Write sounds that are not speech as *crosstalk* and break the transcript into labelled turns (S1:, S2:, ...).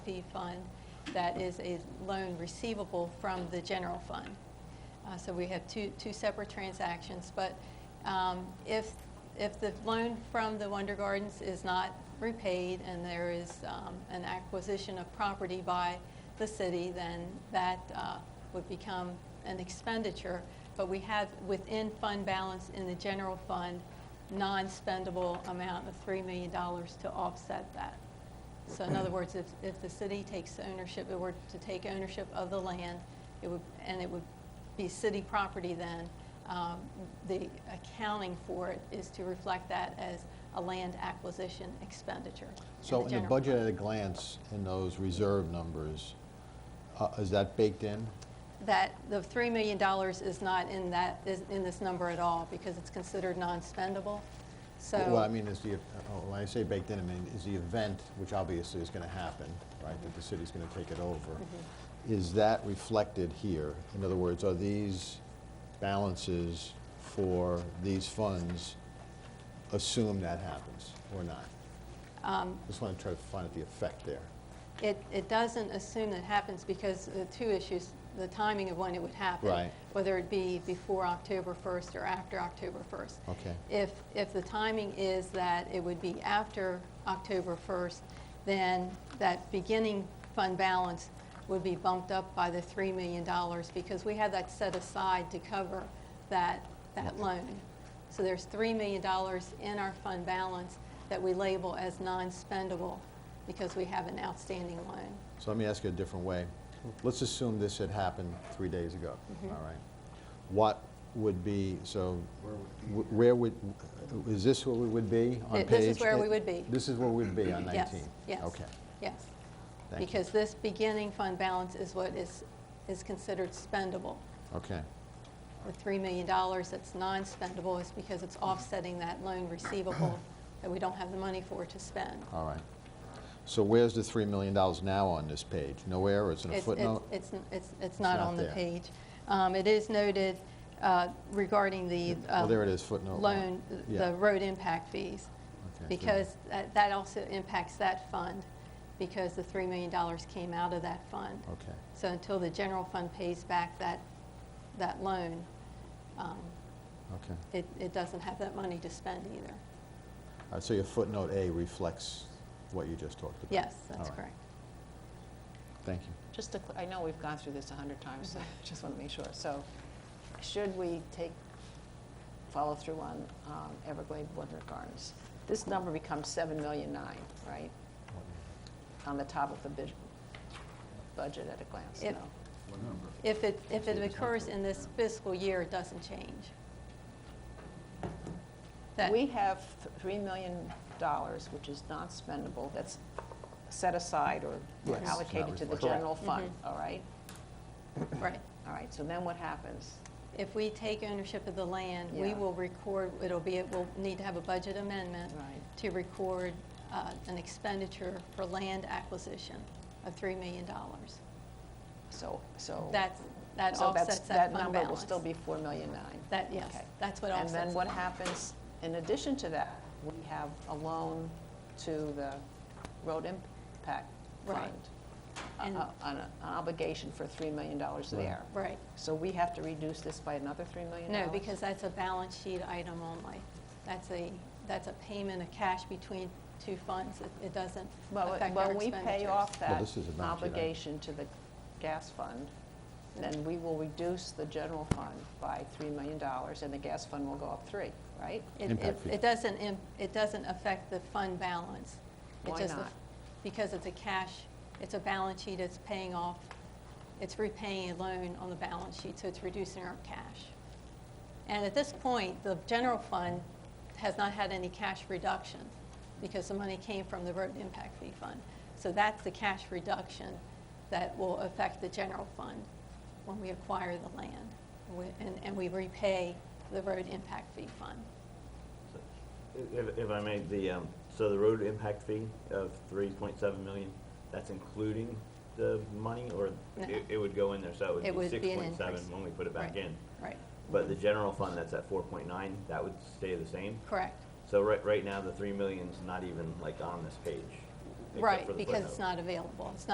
S1: fee fund that is a loan receivable from the general fund. Uh, So we have two, two separate transactions, but um, if, if the loan from the Wonder Gardens is not repaid and there is um, an acquisition of property by the city, then that uh, would become an expenditure. But we have within fund balance in the general fund, non-spendable amount of $3 million to offset that. So in other words, if, if the city takes ownership, it were to take ownership of the land, it would, and it would be city property then, um, the accounting for it is to reflect that as a land acquisition expenditure.
S2: So in the
S1: general
S2: budget
S1: fund.
S2: at a glance, in those reserve numbers, uh, is that baked in?
S1: That, the $3 million is not in that, is in this number at all because it's considered non-spendable. So.
S2: What I mean is the, oh, when I say baked in, I mean, is the event, which obviously is going to happen, right, that the city's going to take it over,
S1: Mm-hmm.
S2: is that reflected here? In other words, are these balances for these funds assume that happens or not?
S1: Um,
S2: Just want to try to find out the effect there.
S1: It, it doesn't assume that happens because the two issues, the timing of when it would happen.
S2: Right.
S1: Whether it be before October 1st or after October 1st.
S2: Okay.
S1: If, if the timing is that it would be after October 1st, then that beginning fund balance would be bumped up by the $3 million because we have that set aside to cover that, that loan. So there's $3 million in our fund balance that we label as non-spendable because we have an outstanding loan.
S2: So let me ask you a different way. Let's assume this had happened three days ago,
S1: Mm-hmm.
S2: all right? What would be, so, wh- where would, is this where we would be on
S1: Th-
S2: page?
S1: this is where we would be.
S2: This is where we'd be on 19?
S1: Yes, yes.
S2: Okay,
S1: Yes.
S2: thank you.
S1: Because this beginning fund balance is what is, is considered spendable.
S2: Okay,
S1: The $3 million that's non-spendable is because it's offsetting that loan
S2: *coughs*
S1: receivable that we don't have the money for to spend.
S2: all right. So where's the $3 million now on this page? Nowhere, or it's in a
S1: It's- it's-
S2: footnote?
S1: It's, n- it's, it's not
S2: not
S1: on the
S2: there.
S1: page. Um, It is noted uh, regarding the.
S2: Well,
S1: um,
S2: there it is, footnote one.
S1: Loan,
S2: Yeah.
S1: the road impact fees.
S2: so-
S1: Because that- that also impacts that fund, because the $3 million came out of that fund.
S2: Okay.
S1: So until the general fund pays back that, that loan, um,
S2: Okay,
S1: it, it doesn't have that money to spend either.
S2: all right, so your footnote A reflects what you just talked about?
S1: Yes,
S2: All
S1: that's
S2: right.
S1: correct.
S2: Thank you.
S3: Just to, cl- I know we've gone through this a hundred times, so I just want to make sure. So should we take, follow through on um, Everglade Wonder Gardens? This number becomes seven million nine, right? On the top of the bid- budget at a glance,
S1: If-
S3: no?
S1: If it, if it occurs in this fiscal year, it doesn't change. That-
S3: We have th- three million dollars, which is not spendable, that's set aside or
S2: Yes.
S3: allocated to the
S2: Correct.
S3: general fund,
S1: Mm-hmm.
S3: all right?
S1: Right.
S3: All right, so then what happens?
S1: If we take ownership of the land, we
S3: Yeah.
S1: will record, it'll be, we'll need to have a budget amendment
S3: Right.
S1: to record uh, an expenditure for land acquisition of $3 million.
S3: So, so.
S1: That's, that
S3: Oh. So that's-
S1: offsets that fund balance.
S3: number will still be four million nine.
S1: That, yes,
S3: Okay.
S1: that's what
S3: And
S1: offsets.
S3: then
S1: it.
S3: what happens, in addition to that, we have a loan to the road impact
S1: Right.
S3: fund. a-
S1: And-
S3: a- An an obligation for three million dollars there.
S1: Right.
S3: So we have to reduce this by another three million
S1: No,
S3: dollars?
S1: because that's a balance sheet item only. That's a, that's a payment of cash between two funds. It- It doesn't
S3: Well,
S1: affect our
S3: When we pay
S1: expenditures.
S3: off
S2: Well,
S3: that
S2: this is a balance sheet item.
S3: obligation to the gas fund, then we will reduce the general fund by three million dollars, and the gas fund will go up three, right?
S1: It-
S2: Impact
S1: It
S2: fee.
S1: it doesn't, im- it doesn't affect the fund balance. It
S3: Why
S1: just
S3: not?
S1: aff- Because it's a cash, it's a balance sheet, it's paying off, it's repaying a loan on the balance sheet, so it's reducing our cash. And at this point, the general fund has not had any cash reduction because the money came from the road impact fee fund. So that's the cash reduction that will affect the general fund when we acquire the land we- and- and we repay the road impact fee fund.
S4: If, if I may, the, um, so the road impact fee of three point seven million, that's including the money, or
S1: No.
S4: it, it would go in there, so
S1: It
S4: it
S1: would
S4: would be six
S1: be an
S4: point seven
S1: increase.
S4: when we put it back
S1: Right,
S4: in?
S1: Right,
S4: But the general fund, that's at four point nine, that would stay the same?
S1: correct.
S4: So right, right now, the three million's not even like on this page? except for
S1: Right,
S4: the
S1: because it's
S4: footnote.
S1: not available. It's not